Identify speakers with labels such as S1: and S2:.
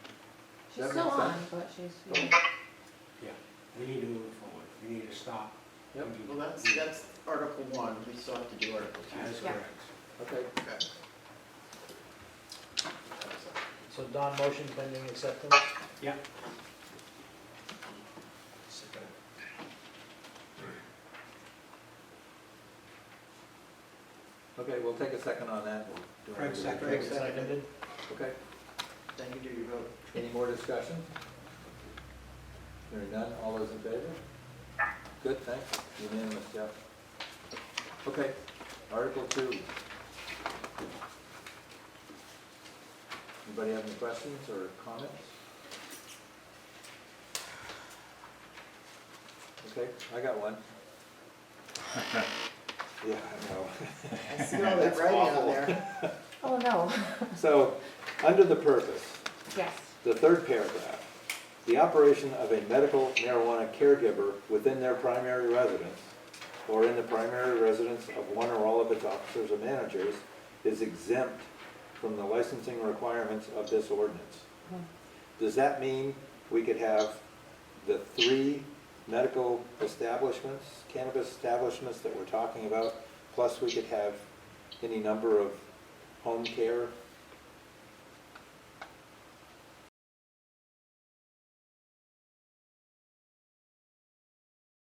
S1: She's
S2: That
S1: still
S2: makes
S1: on,
S2: sense.
S1: but she's,
S2: Cool.
S3: We need to move forward, we need to stop.
S2: Yep,
S4: Well, that's, that's Article one, we still have to do Article
S3: That
S4: two.
S3: is
S1: Yeah.
S3: correct.
S2: okay.
S4: Okay.
S5: So Don, motion pending acceptance?
S3: Second.
S2: Okay, we'll take a second on that. We'll do it.
S3: Craig second.
S4: Craig second.
S5: Seconded?
S2: Okay,
S4: Then you do your vote.
S2: any more discussion? Hearing none, all those in favor? Good, thanks, unanimous, Jeff. Okay, Article Two. Anybody have any questions or comments? Okay, I got one. Yeah, I know.
S4: I see all that
S2: That's
S4: writing on
S2: awful.
S4: there.
S1: oh no,
S2: So, under the purpose,
S1: yes,
S2: The third paragraph, the operation of a medical marijuana caregiver within their primary residence or in the primary residence of one or all of its officers or managers is exempt from the licensing requirements of this ordinance. Does that mean we could have the three medical establishments, cannabis establishments that we're talking about, plus we could have any number of home care